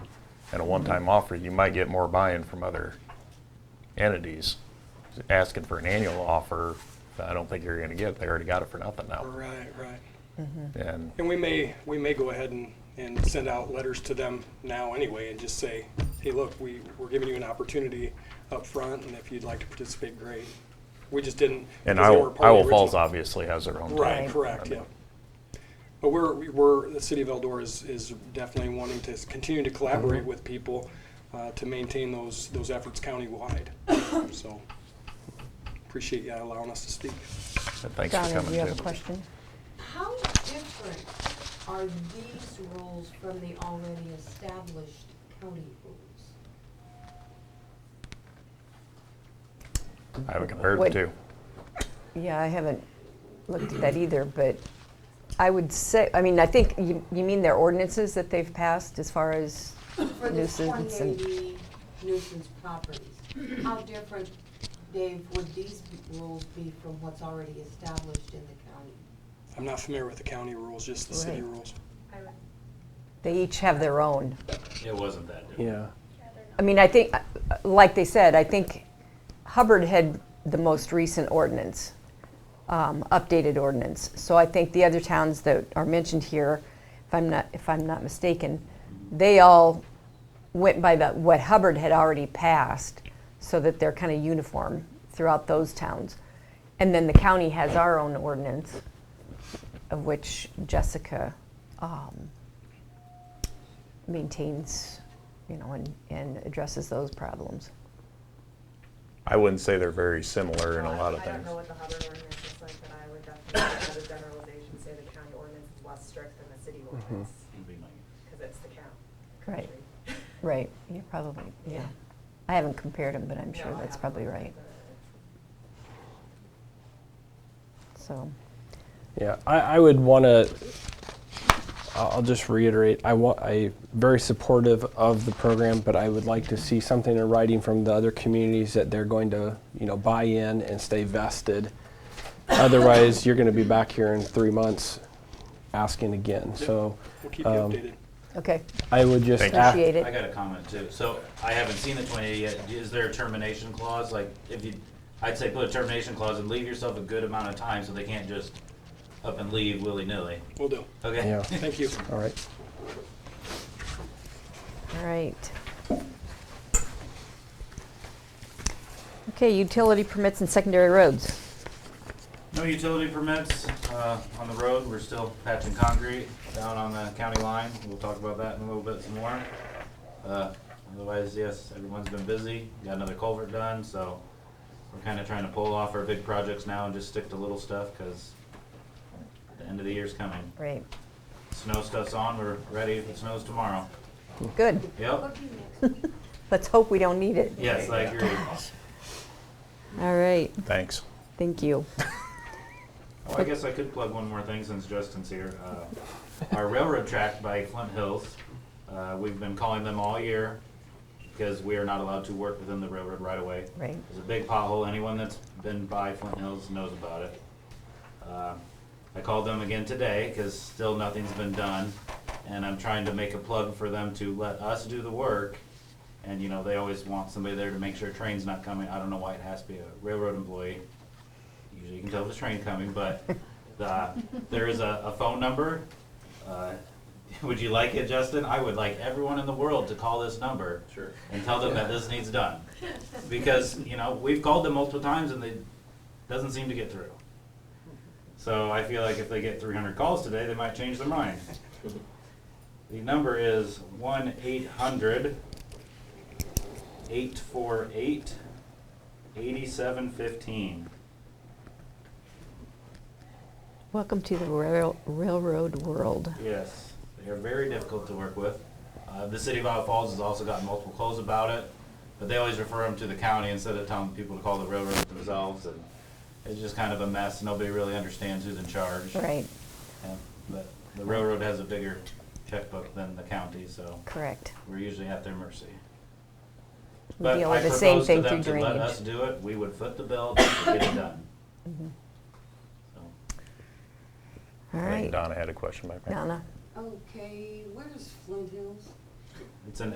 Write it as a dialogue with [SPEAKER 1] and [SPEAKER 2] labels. [SPEAKER 1] and a one-time offer, you might get more buy-in from other entities. Asking for an annual offer, I don't think you're gonna get, they already got it for nothing now.
[SPEAKER 2] Right, right. Mm-hmm.
[SPEAKER 1] And,
[SPEAKER 2] And we may, we may go ahead and, and send out letters to them now anyway and just say, hey, look, we, we're giving you an opportunity up front, and if you'd like to participate, great. We just didn't.
[SPEAKER 1] and
[SPEAKER 2] because they
[SPEAKER 1] Iowa,
[SPEAKER 2] weren't part of the
[SPEAKER 1] Iowa Falls
[SPEAKER 2] original-
[SPEAKER 1] obviously has their own.
[SPEAKER 2] Right,
[SPEAKER 1] time.
[SPEAKER 2] correct,
[SPEAKER 1] I
[SPEAKER 2] yeah.
[SPEAKER 1] mean,
[SPEAKER 2] But we're, we- we're, the city of Eldora is, is definitely wanting to s- continue to collaborate with people uh, to maintain those, those efforts countywide. So appreciate you allowing us to speak.
[SPEAKER 1] and Thanks for
[SPEAKER 3] Donna, do
[SPEAKER 1] coming
[SPEAKER 3] you have a
[SPEAKER 1] too.
[SPEAKER 3] question?
[SPEAKER 4] How different are these rules from the already established county rules?
[SPEAKER 1] I haven't compared the
[SPEAKER 3] What-
[SPEAKER 1] two.
[SPEAKER 3] Yeah, I haven't looked at that either, but I would say, I mean, I think, you you mean their ordinances that they've passed as far as
[SPEAKER 4] For the
[SPEAKER 3] nuisance and,
[SPEAKER 4] 2080 nuisance properties, how different, Dave, would these be- rules be from what's already established in the county?
[SPEAKER 2] I'm not familiar with the county rules, just the city
[SPEAKER 3] Right.
[SPEAKER 2] rules.
[SPEAKER 3] they each have their own.
[SPEAKER 5] It wasn't that different.
[SPEAKER 6] Yeah.
[SPEAKER 3] I mean, I think, uh, uh, like they said, I think Hubbard had the most recent ordinance, um, updated ordinance. So I think the other towns that are mentioned here, if I'm not, if I'm not mistaken, they all went by the, what Hubbard had already passed, so that they're kind of uniform throughout those towns. And then the county has our own ordinance, of which Jessica um, maintains, you know, and, and addresses those problems.
[SPEAKER 1] I wouldn't say they're very similar in a
[SPEAKER 7] Well,
[SPEAKER 1] lot of
[SPEAKER 7] I- I don't
[SPEAKER 1] things.
[SPEAKER 7] know what the Hubbard ordinance is like, but I would definitely, as a generalization, say the county ordinance is less strict than the city ordinance,
[SPEAKER 5] Would be my guess.
[SPEAKER 7] because it's the county.
[SPEAKER 3] Right, right, you're probably, yeah. I haven't compared them, but I'm sure that's probably right, so.
[SPEAKER 6] Yeah, I, I would want to. I'll just reiterate. I want. I very supportive of the program, but I would like to see something in writing from the other communities that they're going to, you know, buy in and stay vested. Otherwise, you're going to be back here in three months, asking again. So,
[SPEAKER 2] We'll keep you
[SPEAKER 6] Um,
[SPEAKER 2] updated.
[SPEAKER 3] Okay,
[SPEAKER 6] I would just
[SPEAKER 1] Thank
[SPEAKER 6] ask-
[SPEAKER 3] appreciate
[SPEAKER 5] I
[SPEAKER 3] it.
[SPEAKER 5] got a comment too. So I haven't seen the 2080 yet. Is there a termination clause? Like if you, I'd say put a termination clause and leave yourself a good amount of time so they can't just up and leave willy-nilly.
[SPEAKER 2] We'll do.
[SPEAKER 5] Okay?
[SPEAKER 6] Yeah.
[SPEAKER 2] Thank you.
[SPEAKER 6] All right.
[SPEAKER 3] All right. Okay, utility permits and secondary roads.
[SPEAKER 5] No utility permits uh, on the road. We're still patching concrete down on the county line. We'll talk about that in a little bit some more. Uh, Otherwise, yes, everyone's been busy. Got another culvert done, so we're kind of trying to pull off our big projects now and just stick to little stuff because the end of the year's coming.
[SPEAKER 3] Right,
[SPEAKER 5] Snow stuff's on. We're ready if it snows tomorrow.
[SPEAKER 3] good.
[SPEAKER 5] Yep.
[SPEAKER 3] Let's hope we don't need it.
[SPEAKER 5] Yes, I agree.
[SPEAKER 3] All right,
[SPEAKER 1] Thanks.
[SPEAKER 3] thank you.
[SPEAKER 5] Oh, I guess I could plug one more thing since Justin's here. Uh, Our railroad track by Flint Hills, uh, we've been calling them all year because we are not allowed to work within the railroad right of way.
[SPEAKER 3] Right.
[SPEAKER 5] There's a big pothole. Anyone that's been by Flint Hills knows about it. Uh, I called them again today because still nothing's been done. And I'm trying to make a plug for them to let us do the work. And, you know, they always want somebody there to make sure a train's not coming. I don't know why it has to be a railroad employee. Usually you can tell if the train coming, but the, there is a, a phone number. Uh, Would you like it, Justin? I would like everyone in the world to call this number. Sure. And tell them that this needs done. Because, you know, we've called them multiple times and they, doesn't seem to get through. So I feel like if they get three hundred calls today, they might change their mind. The number is one eight hundred eight four eight eighty-seven fifteen.
[SPEAKER 3] Welcome to the rail- railroad world.
[SPEAKER 5] Yes, they are very difficult to work with. Uh, the city of Iowa Falls has also gotten multiple calls about it, but they always refer them to the county instead of telling people to call the railroad themselves, and it's just kind of a mess. Nobody really understands who's in charge.
[SPEAKER 3] Right,
[SPEAKER 5] Yeah, But the railroad has a bigger checkbook than the county, so
[SPEAKER 3] correct.
[SPEAKER 5] we're usually at their mercy.
[SPEAKER 3] We
[SPEAKER 5] But
[SPEAKER 3] deal
[SPEAKER 5] I
[SPEAKER 3] with the same
[SPEAKER 5] proposed to
[SPEAKER 3] thing through
[SPEAKER 5] them to let us
[SPEAKER 3] drainage. Mm-hmm.
[SPEAKER 5] do it, we would foot the bill to get it done. So,
[SPEAKER 1] I
[SPEAKER 3] All
[SPEAKER 1] think
[SPEAKER 3] right,
[SPEAKER 1] Donna had a question back there.
[SPEAKER 3] Donna.
[SPEAKER 4] Okay, where's Flint Hills?
[SPEAKER 5] It's an